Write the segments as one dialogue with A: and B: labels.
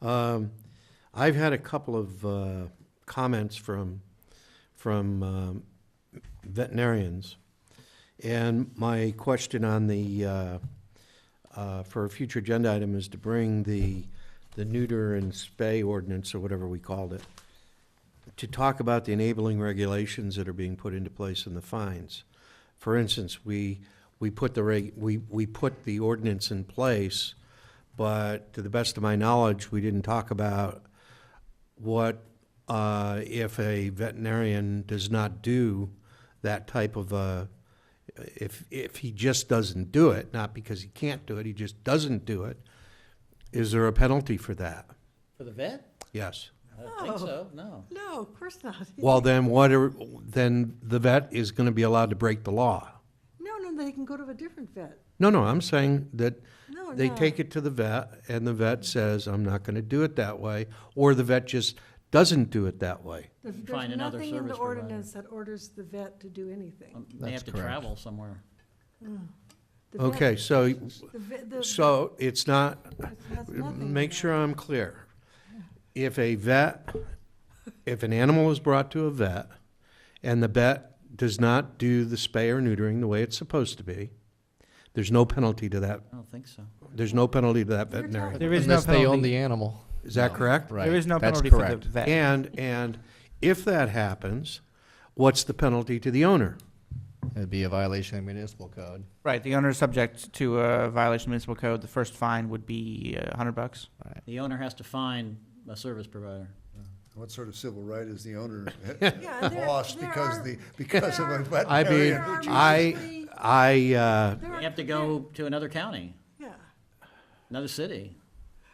A: Um, I've had a couple of uh, comments from, from um, veterinarians. And my question on the, uh, uh, for a future agenda item is to bring the, the neuter and spay ordinance, or whatever we called it, to talk about the enabling regulations that are being put into place and the fines. For instance, we, we put the reg, we, we put the ordinance in place, but to the best of my knowledge, we didn't talk about what, uh, if a veterinarian does not do that type of, uh, if, if he just doesn't do it, not because he can't do it, he just doesn't do it, is there a penalty for that?
B: For the vet?
A: Yes.
B: I don't think
C: Oh.
B: so, no.
C: No, of course not.
A: Well, then what are, then the vet is gonna be allowed to break the law.
C: No, no, they can go to a different vet.
A: No, no, I'm saying that
C: No,
A: they
C: Oh, no.
A: take it to the vet and the vet says, I'm not gonna do it that way, or the vet just doesn't do it that way.
C: There's
B: You
C: there's
B: find another
C: nothing in the
B: service provider.
C: ordinance that orders the vet to do anything. Mm.
B: Um, They have
D: That's
B: to
D: correct.
B: travel somewhere.
C: The vet-
A: Okay, so,
C: The vet, the.
A: so it's not,
C: it has nothing in
A: make
C: that.
A: sure I'm clear. If a vet, if an animal is brought to a vet and the vet does not do the spay or neutering the way it's supposed to be, there's no penalty to that,
B: I don't think so.
A: there's no penalty to that
C: You're talking
A: veterinarian.
E: There is no
D: Unless they own
E: penalty.
D: the animal.
A: Is that correct?
D: Right.
E: There is no
D: That's
E: penalty for the
D: correct.
E: vet.
A: And, and if that happens, what's the penalty to the owner?
D: It'd be a violation of municipal code.
E: Right, the owner is subject to a violation of municipal code. The first fine would be uh, a hundred bucks.
B: The owner has to find a service provider.
F: What sort of civil right is the owner
C: Yeah, there-
F: lost
C: there
F: because
C: are-
F: the, because of a
C: there
A: I mean,
C: are
F: veterinarian?
A: I,
C: mostly-
A: I, uh,
C: There
B: They
C: are-
B: have to go to another county,
C: Yeah.
B: another city.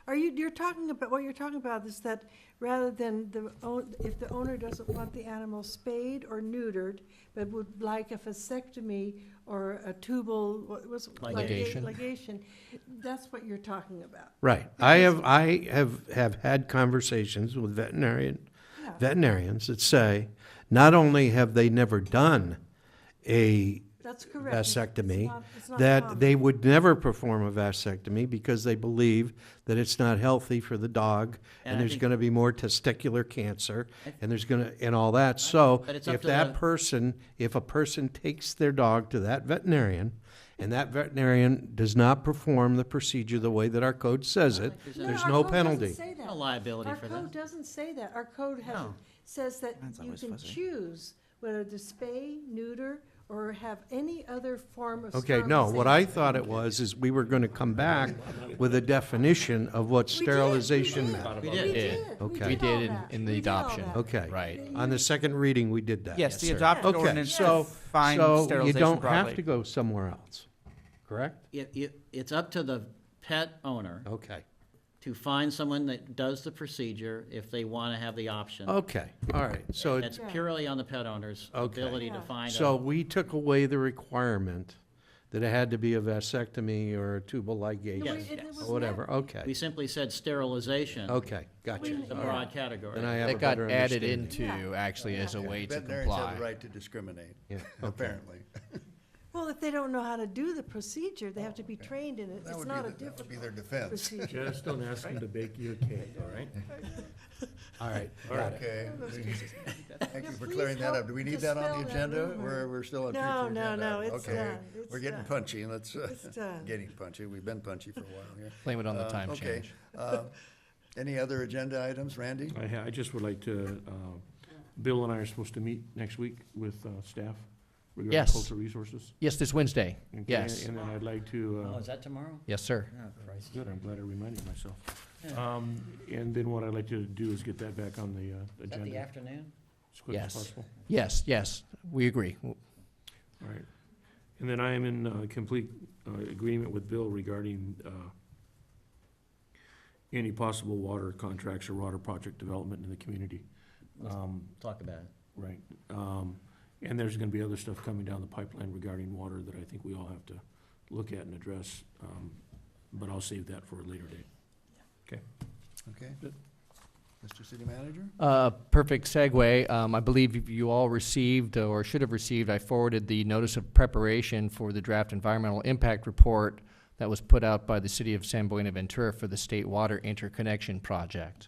C: Are you, you're talking about, what you're talking about is that rather than the, own- if the owner doesn't want the animal spayed or neutered, but would like a vasectomy or a tubal, what was?
B: Ligation.
C: Ligation, that's what you're talking about.
A: right, I have, I have, have had conversations with veterinarian, veterinarians that say, not only have they never done a
C: That's correct. It's- it's
A: vasectomy,
C: not- it's not
A: that
C: common.
A: they would never perform a vasectomy because they believe that it's not healthy for the dog,
B: And I
A: and there's
B: think-
A: gonna be more testicular cancer, and there's gonna, and all that, so
B: But it's up
A: if
B: to
A: that
B: the-
A: person, if a person takes their dog to that veterinarian, and that veterinarian does not perform the procedure the way that our code says it, there's
C: our
A: no
C: code doesn't
A: penalty.
C: say that.
B: No liability for
C: Our
B: that.
C: code doesn't say that. Our code has,
B: No.
C: says that
E: That's
C: you
E: always
C: can
E: fuzzy.
C: choose whether to spay, neuter, or have any other form of.
A: Okay, no, what
C: sterilization.
A: I thought it was, is we were gonna come back with a definition of what
C: We did, we
A: sterilization
C: did.
A: meant.
B: We
C: We
B: did.
C: did.
D: did.
A: Okay.
C: We
A: We
C: did all
D: did in-
C: that.
D: in the
C: We did all
D: adoption.
C: that.
A: Okay.
D: Right.
A: On the second reading, we did that.
E: Uh, Yes, the
D: sir.
E: adopted
A: Okay,
E: ordinance
A: so-
E: fines
A: So you
E: sterilization
A: don't have
E: broadly.
A: to go somewhere else, correct?
B: It, it, it's up to the pet owner
A: Okay.
B: to find someone that does the procedure if they want to have the option.
A: Okay, all right, so,
B: That's purely on the pet owner's
A: Okay.
B: ability to
C: Yeah.
B: find a.
A: so we took away the requirement that it had to be a vasectomy or a tubal
C: No,
A: ligation,
C: it- it was
A: or whatever,
B: We
A: okay,
B: simply said sterilization.
A: okay, gotcha.
B: It's a broad category.
A: Then I have a
D: That got
A: better
D: added
A: understanding.
D: into actually as a way to
F: Veterinarians have the
D: comply.
F: right to discriminate,
A: Yeah,
F: apparently.
C: Well, if they don't know how to do the procedure, they have to be trained in it.
F: That
C: It's
F: would
C: not a
F: be, the- that would be
C: difficult
F: their defense.
C: procedure.
G: Just don't ask them to bake you a cake, all right?
A: All right, got it.
F: Okay. Thank you for
C: Please
F: clearing that up.
C: help
F: Do we need that on
C: dispel
F: the
C: that
F: agenda?
C: rumor.
F: We're, we're still on future
C: No,
F: agenda.
C: no, no,
F: item.
C: it's
F: Okay.
C: done. It's
F: We're getting
C: done.
F: punchy, let's, uh,
C: It's done.
F: getting punchy. We've been punchy for a while here.
D: Blame it on the
F: Uh,
D: time
F: okay.
D: change.
F: Uh, Any other agenda items, Randy?
G: I, ha- I just would like to, uh, Bill and I are supposed to meet next week with uh, staff regarding
D: Yes.
G: cultural resources.
D: Yes, this Wednesday.
G: okay?
D: Yes.
G: And then I'd like to,
B: Oh,
G: uh,
B: is that tomorrow?
D: Yes, sir.
B: Oh, Christ.
G: good, I'm glad I reminded myself. Um, And then what I'd like to do is get that back on the uh,
B: Is that the
G: agenda
B: afternoon?
G: as quick as
D: Yes.
G: possible.
D: Yes, yes, we agree.
G: All right. And then I am in uh, complete uh, agreement with Bill regarding uh, any possible water contracts or water project development in the community. Um,
B: Talk about it.
G: Right. Um, And there's going to be other stuff coming down the pipeline regarding water that I think we all have to look at and address. um, But I'll save that for a later date.
F: Okay. Mr. City Manager?
D: Uh, Perfect segue. Um, I believe you all received, or should have received, I forwarded the notice of preparation for the draft environmental impact report that was put out by the city of San Buenaventura for the State Water Interconnection Project.